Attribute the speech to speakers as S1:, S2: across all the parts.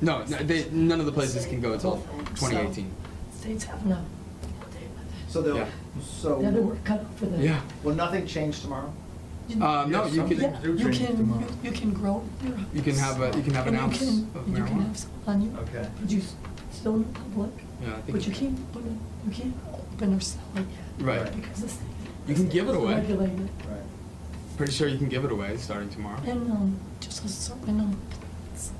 S1: No, no they, none of the places can go until 2018.
S2: States have no.
S3: So they'll,
S1: Yeah.
S2: They're the
S4: uh,
S3: so,
S2: work cut out for them.
S1: Yeah.
S3: will nothing change tomorrow?
S1: Uh, no, you
S4: something-
S1: can.
S2: Yeah,
S4: do
S2: you
S4: change
S2: can,
S4: tomorrow.
S2: you- you can grow your
S1: You can have a- you can have an
S2: house,
S1: ounce
S2: and
S1: of
S2: You can, you can
S1: marijuana.
S2: have some on you.
S3: Okay.
S2: But you s- still in the public.
S1: Yeah, I think-
S2: But you can't, put it- you can't open or sell it yet.
S1: Right.
S3: Right.
S2: Because the state.
S1: You can
S2: the
S1: give it
S2: state
S1: away.
S2: doesn't regulate it.
S3: Right.
S1: Pretty sure you can give it away starting tomorrow.
S2: And, um, just a certain number. of plants.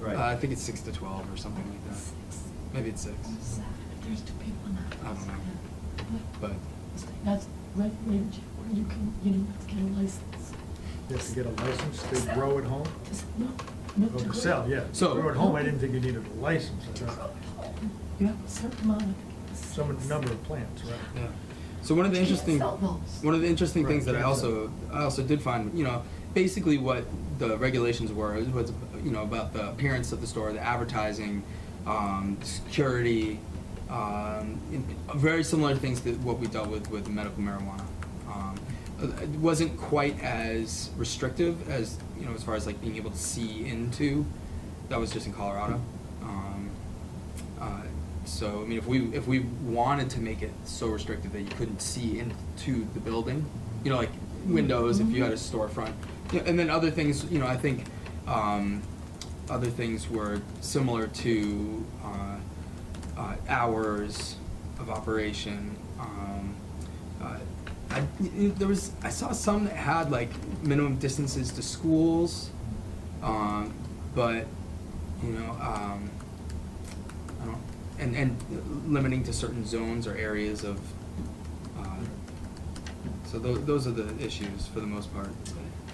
S3: Right.
S1: Uh, I think it's six to twelve or something like that.
S2: Six.
S1: Maybe it's six.
S2: Seven, if there's two people in the
S1: I don't
S2: house,
S1: know.
S2: yeah.
S1: But
S2: the state has regulated you, where you can, you don't have to get a license.
S4: You have to get a license to grow at home?
S2: To s- No, not
S4: Oh,
S2: to
S4: to
S2: grow.
S4: sell, yeah.
S1: So-
S4: Grow at home, I didn't think you needed a license. I
S2: To grow
S4: thought
S2: at home, you have a certain amount of.
S4: Some number of plants, right?
S1: yeah. So one of the
S2: You can't
S1: interesting
S2: sell those.
S1: one of the interesting things
S4: Right,
S1: that I
S4: yeah.
S1: also I also did find, you know, basically what the regulations were is was you know about the appearance of the store, the advertising, um, security, um, in, very similar things that what we dealt with with medical marijuana. Um, it wasn't quite as restrictive as you know as far as like being able to see into. That was just in Colorado. Um, uh, So, I mean, if we, if we wanted to make it so restricted that you couldn't see into the building, you know, like windows, if you had a storefront. Yeah, And then other things, you know, I think, um, other things were similar to, uh, uh, hours of operation, um, uh, I, y- y- there was, I saw some that had like minimum distances to schools, um, but, you know, um, I don't, and, and limiting to certain zones or areas of, uh, so tho- those are the issues for the most part.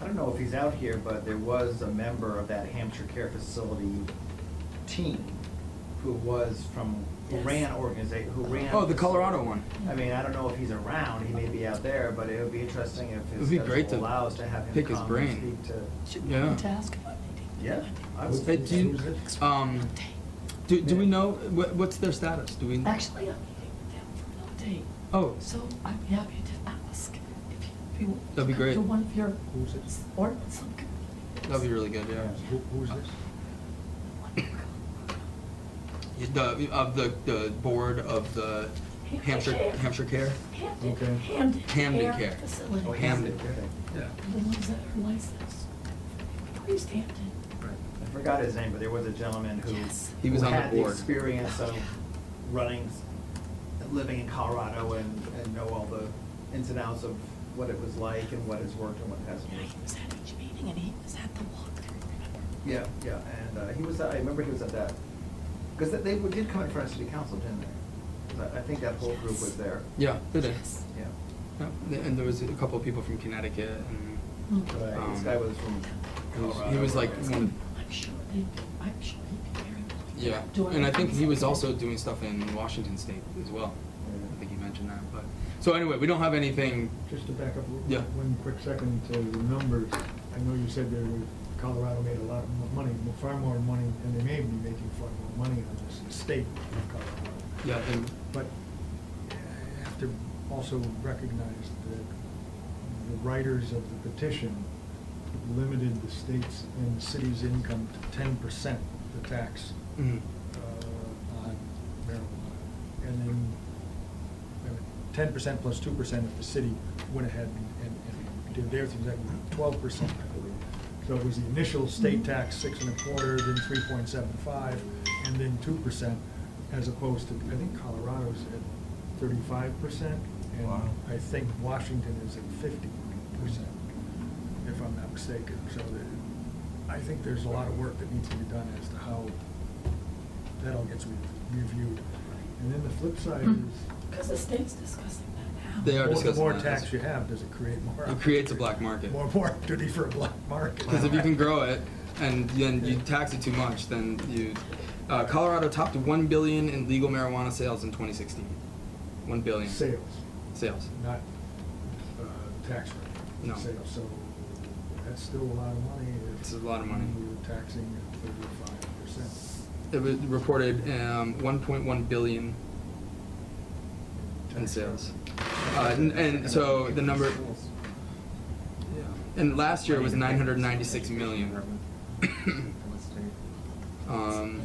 S3: I don't know if he's out here, but there was a member of that Hampshire Care Facility team who was from, who
S2: Yes.
S3: ran organization, who ran.
S1: Oh, the Colorado one.
S3: I mean, I don't know if he's around, he may be out there, but it would be interesting if
S1: It'd
S3: his
S1: be great
S3: schedule
S1: to
S3: allows to have him
S1: pick his
S3: come and
S1: brain.
S3: speak to.
S2: Should
S1: Yeah.
S2: we task about it?
S3: Yeah, I would
S1: Uh,
S3: think
S1: do you- um, do, do we know, what, what's their status? Do we?
S2: Actually, I'm meeting with them for an update,
S1: Oh,
S2: so I'd be happy to ask if you- if you. want to
S1: That'd be
S2: come
S1: great.
S2: To one of your
S4: Who's it?
S2: ordinance.
S1: that'd be really good, yeah.
S4: Who, who's this?
S1: The, of the, the board of the Hampshire, Hampshire Care?
S2: Hamden,
S4: Okay.
S2: Hamden.
S1: Hamden Care.
S2: Facility.
S3: Oh,
S1: Hamden.
S3: okay.
S1: Yeah.
S2: The ones that are licensed. Priest Hampton.
S3: I forgot his name, but there was a gentleman who.
S2: Yes.
S1: He was
S3: who
S1: on the
S3: had
S1: board.
S3: experience of
S2: Yeah.
S3: running, living in Colorado and, and know all the ins and outs of what it was like and what has worked and what hasn't
S2: Yeah,
S3: worked.
S2: he was at each meeting and he was at the walkthrough, remember?
S3: Yeah, yeah, and uh, he was, I remember he was at that, because they would- did come in front of city council, didn't they? 'Cause I I think that whole group was there,
S1: Yeah, they did.
S2: Yes.
S3: yeah.
S1: Yeah, And there was a couple of people from Connecticut and.
S2: Mm.
S3: Right, This
S1: Um,
S3: guy was from
S1: he was- he
S3: Colorado.
S1: was like
S3: right?
S1: one of-
S2: I'm sure they, I'm sure he'd be very
S1: Yeah,
S2: willing. Do
S1: and I think he was also
S2: Yeah.
S1: doing stuff in Washington State as well.
S3: Yeah.
S1: I think you mentioned that, but, so anyway, we don't have anything,
S4: Just to back up w-
S1: Yeah.
S4: one quick second to the numbers, I know you said there were, Colorado made a lot of mo- money, mo- far more money, and they may be making far more money on this estate of Colorado.
S1: yeah, and,
S4: But I have to also recognize that the writers of the petition limited the state's and city's income to ten percent, the tax
S1: mm,
S4: uh, on marijuana. And then ten percent plus two percent if the city went ahead and, and did their things, that would be twelve percent, I believe. So it was the initial state tax, six and a quarter, then three point seven five, and then two percent, as opposed to, I think Colorado's at thirty-five percent. And
S3: Wow.
S4: I think Washington is at fifty percent, if I'm not mistaken. So the- I think there's a lot of work that needs to be done as to how that all gets re- reviewed. And then the flip side is,
S2: Because the state's discussing that now.
S1: They are
S4: more- the
S1: discussing
S4: more
S1: that.
S4: tax you have, does it create more?
S1: it creates a black market.
S4: More, more opportunity for a black market.
S1: Because if you can grow it and then you tax it too much, then you, uh, Colorado topped one billion in legal marijuana sales in twenty sixteen. One billion.
S4: Sales,
S1: Sales.
S4: not uh, tax rate.
S1: No.
S4: Sales, so that's still a lot of money. if
S1: It's a lot of money.
S4: We were taxing at thirty-five percent.
S1: It was reported, um, one point one billion in sales. Uh, and, and so the number, and last year it was nine hundred ninety-six million. Um,